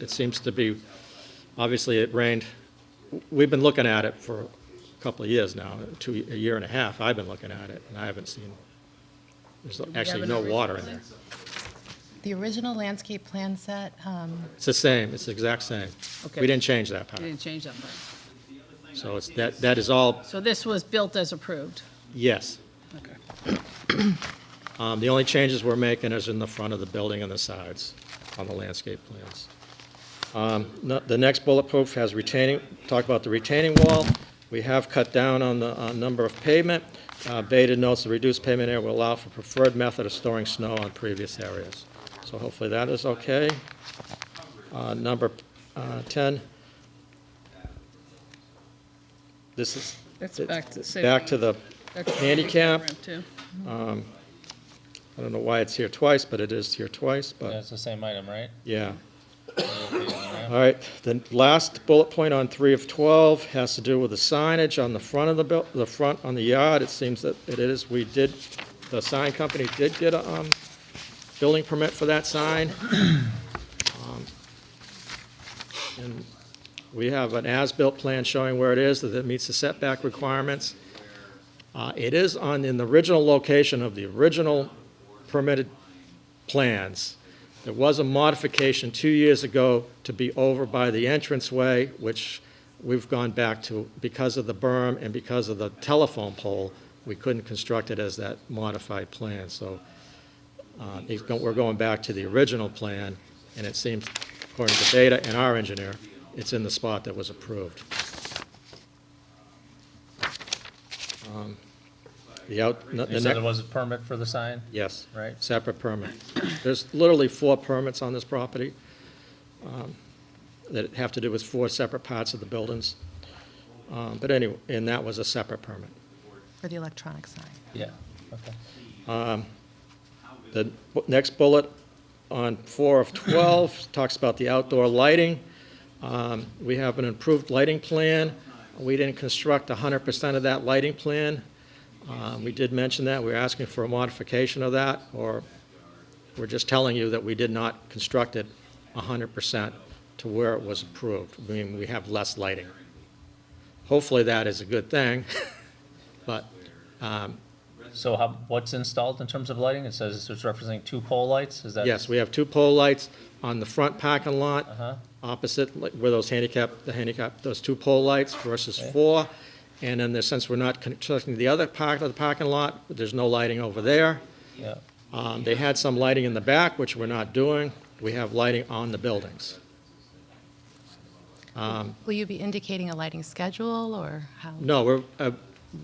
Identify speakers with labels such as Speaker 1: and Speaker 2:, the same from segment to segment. Speaker 1: it seems to be, obviously it rained, we've been looking at it for a couple of years now, two, a year and a half, I've been looking at it, and I haven't seen, there's actually
Speaker 2: an
Speaker 1: no
Speaker 2: original
Speaker 1: water in there.
Speaker 3: The original landscape plan set, um,
Speaker 1: It's the same, it's the exact same.
Speaker 2: Okay.
Speaker 1: We didn't change that
Speaker 2: You
Speaker 1: part.
Speaker 2: didn't change that part.
Speaker 1: So it's, that, that is all,
Speaker 2: So this was built as approved.
Speaker 1: yes.
Speaker 2: Okay.
Speaker 1: Um, The only changes we're making is in the front of the building and the sides on the landscape plans. Um, no- The next bullet point has retaining, talk about the retaining wall. We have cut down on the uh, number of pavement. Uh, Beta notes the reduced pavement area will allow for preferred method of storing snow on previous areas. So hopefully that is okay. Uh, Number uh, 10. This is.
Speaker 2: It's back to safety.
Speaker 1: Back to the handicap.
Speaker 2: Too.
Speaker 1: I don't know why it's here twice, but it is here twice,
Speaker 4: Yeah,
Speaker 1: but,
Speaker 4: it's the same item, right?
Speaker 1: yeah.
Speaker 4: Okay, all right.
Speaker 1: All right, the last bullet point on three of 12 has to do with the signage on the front of the, buil- the front on the yard. It seems that it is, we did, the sign company did get a um, building permit for that sign. Um, And we have an as-built plan showing where it is, that it meets the setback requirements. Uh, It is on, in the original location of the original permitted plans. There was a modification two years ago to be over by the entranceway, which we've gone back to because of the berm and because of the telephone pole, we couldn't construct it as that modified plan, so uh, it's go- we're going back to the original plan, and it seems, according to data and our engineer, it's in the spot that was approved. Um, The out, n- the
Speaker 4: You
Speaker 1: next.
Speaker 4: said there was a permit for the sign?
Speaker 1: Yes.
Speaker 4: Right.
Speaker 1: Separate permit. There's literally four permits on this property um, that have to do with four separate parts of the buildings. Um, But anyway, and that was a separate permit.
Speaker 3: for the electronic sign.
Speaker 4: Yeah, okay.
Speaker 1: The bu- next bullet on four of 12 talks about the outdoor lighting. Um, We have an improved lighting plan. We didn't construct 100% of that lighting plan. Um, We did mention that, we are asking for a modification of that, or we're just telling you that we did not construct it 100% to where it was approved. I mean, we have less lighting. Hopefully, that is a good thing, but
Speaker 4: So how, what's installed in terms of lighting? It says it's representing two pole lights, is that?
Speaker 1: Yes, we have two pole lights on the front parking lot,
Speaker 4: Uh-huh.
Speaker 1: opposite, like, where those handicap, the handicap, those two pole lights versus four. And then, there- since we're not constructing the other part of the parking lot, there's no lighting over there.
Speaker 4: Yeah,
Speaker 1: Um, They had some lighting in the back, which we're not doing. We have lighting on the buildings.
Speaker 3: Will you be indicating a lighting schedule or how?
Speaker 1: No, we're, uh,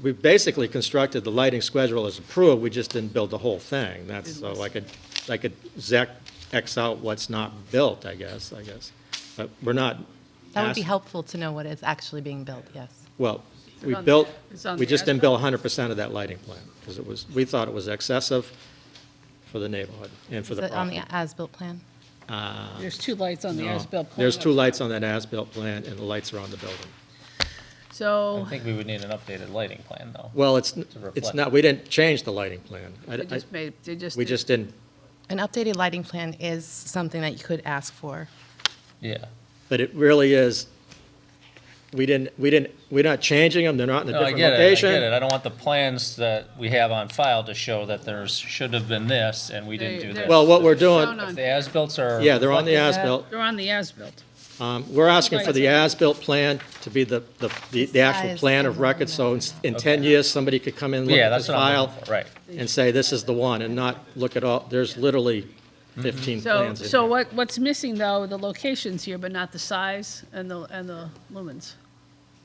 Speaker 1: we basically constructed the lighting schedule as approved, we just didn't build the whole thing. That's, uh, so I could, I could zec, X out what's not built, I guess, I guess. But we're not.
Speaker 3: That would be
Speaker 1: ask-
Speaker 3: helpful to know what is actually being built, yes.
Speaker 1: Well, we
Speaker 2: on the-
Speaker 1: built,
Speaker 2: it's on
Speaker 1: we
Speaker 2: the
Speaker 1: just didn't build hundred percent of that lighting plan, because it was, we thought it was excessive for the neighborhood and for
Speaker 3: Is
Speaker 1: the
Speaker 3: it on the
Speaker 1: property.
Speaker 3: as-built plan?
Speaker 2: There's two lights on the
Speaker 1: No.
Speaker 2: as-built plan.
Speaker 1: There's two lights on that as-built plan, and the lights are on the building.
Speaker 4: I
Speaker 2: So
Speaker 4: think we would need an updated lighting plan, though.
Speaker 1: Well, it's, n- it's
Speaker 4: reflect.
Speaker 1: not, we didn't change the lighting plan. I-
Speaker 2: they
Speaker 1: I-
Speaker 2: just made, they just.
Speaker 1: We
Speaker 2: did-
Speaker 1: just didn't
Speaker 3: An updated lighting plan is something that you could ask for.
Speaker 4: Yeah.
Speaker 1: But it really is, we didn't, we didn't, we're not changing them, they're not in a
Speaker 4: No, I
Speaker 1: different
Speaker 4: get it, I
Speaker 1: location.
Speaker 4: get it. I don't want the plans that we have on file to show that there's, should have been this, and we didn't
Speaker 2: They-
Speaker 4: do
Speaker 2: they're
Speaker 4: this.
Speaker 1: Well, what we're
Speaker 2: shown
Speaker 1: doing-
Speaker 2: on-
Speaker 4: The as-bills are.
Speaker 1: Yeah, they're on the
Speaker 4: reflected?
Speaker 1: as-built.
Speaker 2: They're on the as-built.
Speaker 1: Um, We're asking for the
Speaker 2: Right.
Speaker 1: as-built plan to be the, the, the- the actual
Speaker 3: Size
Speaker 1: plan of
Speaker 3: and
Speaker 1: record, so in s- in 10 years, somebody could come in, look
Speaker 4: Yeah,
Speaker 1: at this
Speaker 4: that's what I'm
Speaker 1: file,
Speaker 4: looking for, right.
Speaker 1: and say, this is the one, and not look at all, there's literally
Speaker 4: Mm-hmm.
Speaker 1: 15
Speaker 2: So,
Speaker 1: plans in
Speaker 2: so
Speaker 1: here.
Speaker 2: what, what's missing though, the locations here, but not the size and the, and the lumens.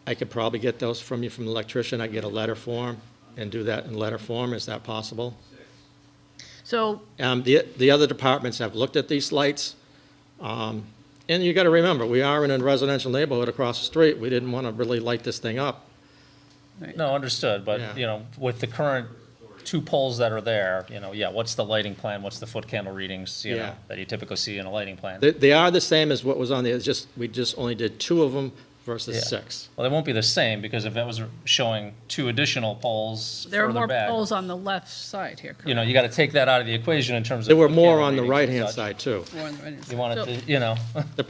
Speaker 1: I could probably get those from you, from the electrician, I get a letter form, and do that in letter form, is that possible?
Speaker 2: So
Speaker 1: Um, The, the other departments have looked at these lights. Um, And you got to remember, we are in a residential neighborhood across the street. We didn't want to really light this thing up.
Speaker 4: No,
Speaker 1: Yeah.
Speaker 4: understood, but, you know, with the current two poles that are there, you know, yeah, what's the lighting plan, what's the foot candle readings, you
Speaker 1: Yeah.
Speaker 4: know, that you typically see in a lighting plan?
Speaker 1: They, they are the same as what was on the, it's just, we just only did two of them versus
Speaker 4: Yeah.
Speaker 1: six.
Speaker 4: Well, they won't be the same, because if that was showing two additional poles
Speaker 2: there are
Speaker 4: further
Speaker 2: more
Speaker 4: back,
Speaker 2: poles on the left side here,
Speaker 4: you
Speaker 2: correct?
Speaker 4: know, you gotta take that out of the equation in terms of.
Speaker 1: There were
Speaker 4: foot
Speaker 1: more
Speaker 4: candle
Speaker 1: on the
Speaker 4: readings
Speaker 1: right-hand
Speaker 4: and such.
Speaker 1: side, too.
Speaker 2: More on the right-hand side. So-
Speaker 4: You wanted to, you know.